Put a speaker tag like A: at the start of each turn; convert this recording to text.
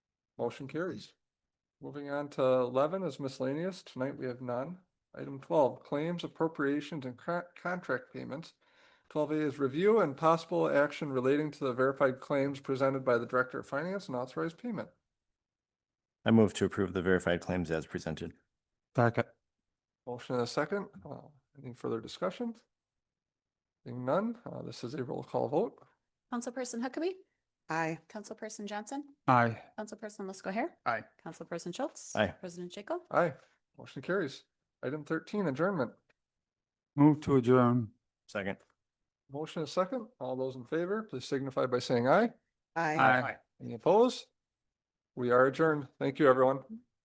A: Motion carries. Moving on to eleven is miscellaneous. Tonight we have none. Item twelve, claims appropriations and co- contract payments. Twelve A is review and possible action relating to the verified claims presented by the Director of Finance and authorized payment.
B: I move to approve the verified claims as presented.
C: Second.
A: Motion and a second. Uh, Any further discussion? Seeing none, uh, this is a roll call vote.
D: Councilperson Huckabee,
E: Aye.
D: Councilperson Johnson,
C: Aye.
D: Councilperson Lesko Hair.
C: Aye.
D: Councilperson Schultz.
B: Aye.
D: President Jacob.
A: Aye, motion carries. Item thirteen, adjournment.
C: Move to adjourn.
B: Second.
A: Motion and a second. All those in favor, please signify by saying aye. Any opposed? We are adjourned. Thank you, everyone.